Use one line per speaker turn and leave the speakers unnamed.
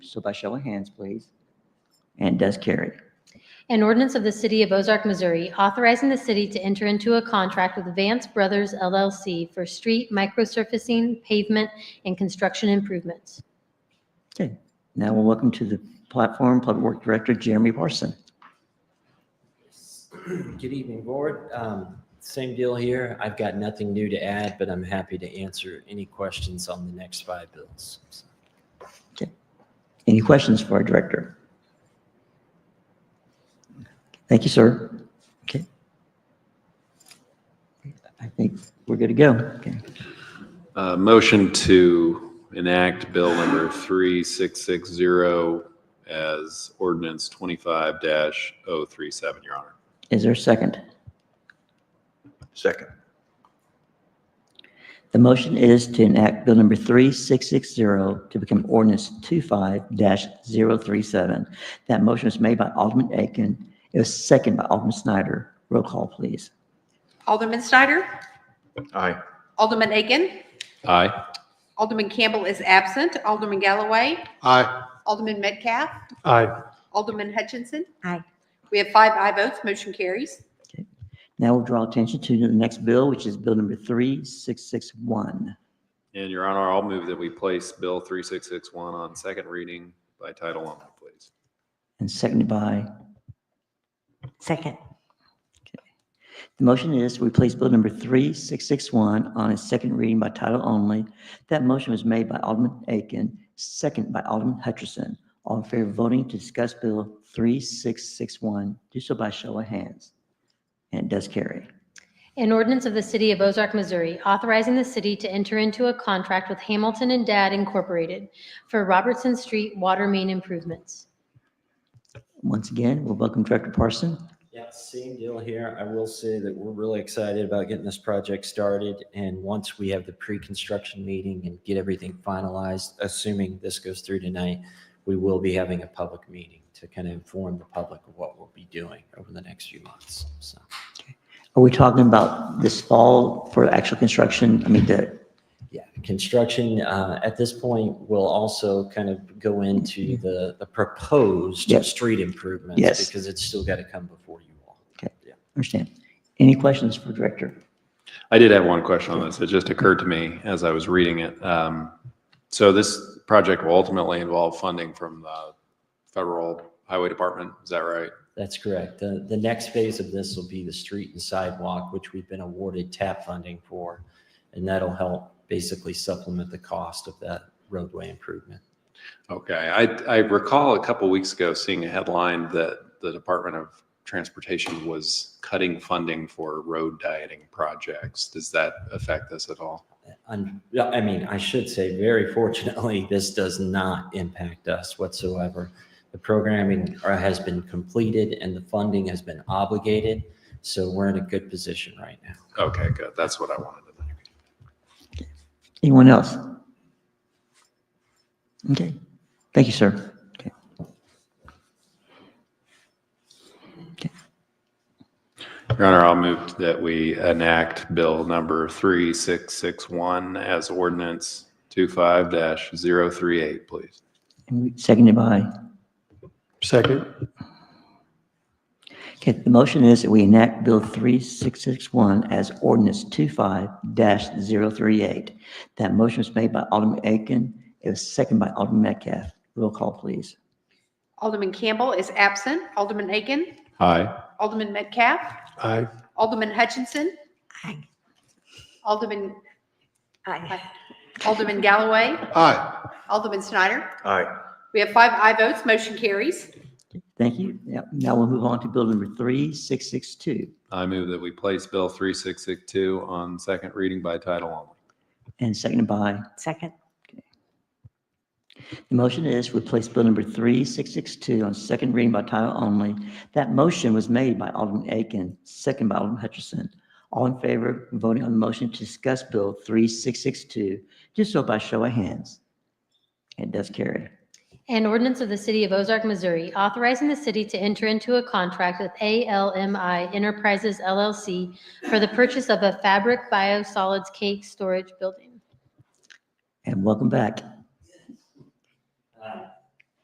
so by show of hands, please. And does carry.
An ordinance of the City of Ozark, Missouri, authorizing the city to enter into a contract with Vance Brothers LLC for street microsurfacing, pavement, and construction improvements.
Okay, now we'll welcome to the platform Public Work Director Jeremy Parson.
Good evening, Board. Um, Same deal here. I've got nothing new to add, but I'm happy to answer any questions on the next five bills.
Any questions for our director? Thank you, sir. Okay. I think we're good to go. Okay.
Uh, Motion to enact Bill number 3660 as ordinance 25-037, Your Honor.
Is there a second?
Second.
The motion is to enact Bill Number 3660 to become ordinance 25-037. That motion was made by Alderman Aiken. It was seconded by Alderman Snyder. Roll call, please.
Alderman Snyder?
Aye.
Alderman Aiken?
Aye.
Alderman Campbell is absent. Alderman Galloway?
Aye.
Alderman Metcalf?
Aye.
Alderman Hutchinson?
Aye.
We have five aye votes, motion carries.
Now we'll draw attention to the next bill, which is Bill Number 3661.
And Your Honor, I'll move that we place Bill 3661 on second reading by title only, please.
And seconded by,
Second.
the motion is we place Bill Number 3661 on its second reading by title only. That motion was made by Alderman Aiken, seconded by Alderman Hutchinson. All in favor of voting to discuss Bill 3661, do so by show of hands. And it does carry.
An ordinance of the City of Ozark, Missouri, authorizing the city to enter into a contract with Hamilton and Dad Incorporated for Robertson Street water main improvements.
Once again, we'll welcome Director Parson.
Yeah, same deal here. I will say that we're really excited about getting this project started. And once we have the pre-construction meeting and get everything finalized, assuming this goes through tonight, we will be having a public meeting to kind of inform the public of what we'll be doing over the next few months. So
Are we talking about this fall for actual construction? I mean, the,
Yeah, construction, uh, at this point, will also kind of go into the, the proposed
Mm-hmm. Yes.
street improvements.
Yes.
Because it's still got to come before you all.
understand. Any questions for Director?
I did have one question on this. It just occurred to me as I was reading it. Um, So this project will ultimately involve funding from the Federal Highway Department, is that right?
That's correct. The, the next phase of this will be the street and sidewalk, which we've been awarded tap funding for. And that'll help basically supplement the cost of that roadway improvement.
Okay, I, I recall a couple weeks ago seeing a headline that the Department of Transportation was cutting funding for road dieting projects. Does that affect this at all?
And, yeah, I mean, I should say, very fortunately, this does not impact us whatsoever. The programming uh, has been completed and the funding has been obligated, so we're in a good position right now.
Okay, good. That's what I wanted to think.
Anyone else? Okay, thank you, sir. Okay.
Your Honor, I'll move that we enact Bill number 3661 as ordinance 25-038, please.
And we- Seconded by,
Second.
okay, the motion is that we enact Bill 3661 as ordinance 25-038. That motion was made by Alderman Aiken. It was seconded by Alderman Metcalf. Roll call, please.
Alderman Campbell is absent. Alderman Aiken?
Aye.
Alderman Metcalf?
Aye.
Alderman Hutchinson?
Aye.
Alderman,
Aye.
Alderman Galloway?
Aye.
Alderman Snyder?
Aye.
We have five aye votes, motion carries.
Thank you. Now- Now we'll move on to Bill number 3662.
I move that we place Bill 3662 on second reading by title only.
And seconded by,
Second.
the motion is replace bill number 3662 on second reading by title only. That motion was made by Alderman Aiken, second by Alderman Hutchinson. All in favor of voting on the motion to discuss bill 3662, do so by show of hands. It does carry.
An ordinance of the City of Ozark, Missouri, authorizing the city to enter into a contract with ALMI Enterprises LLC for the purchase of a fabric biosolids cake storage building.
And welcome back.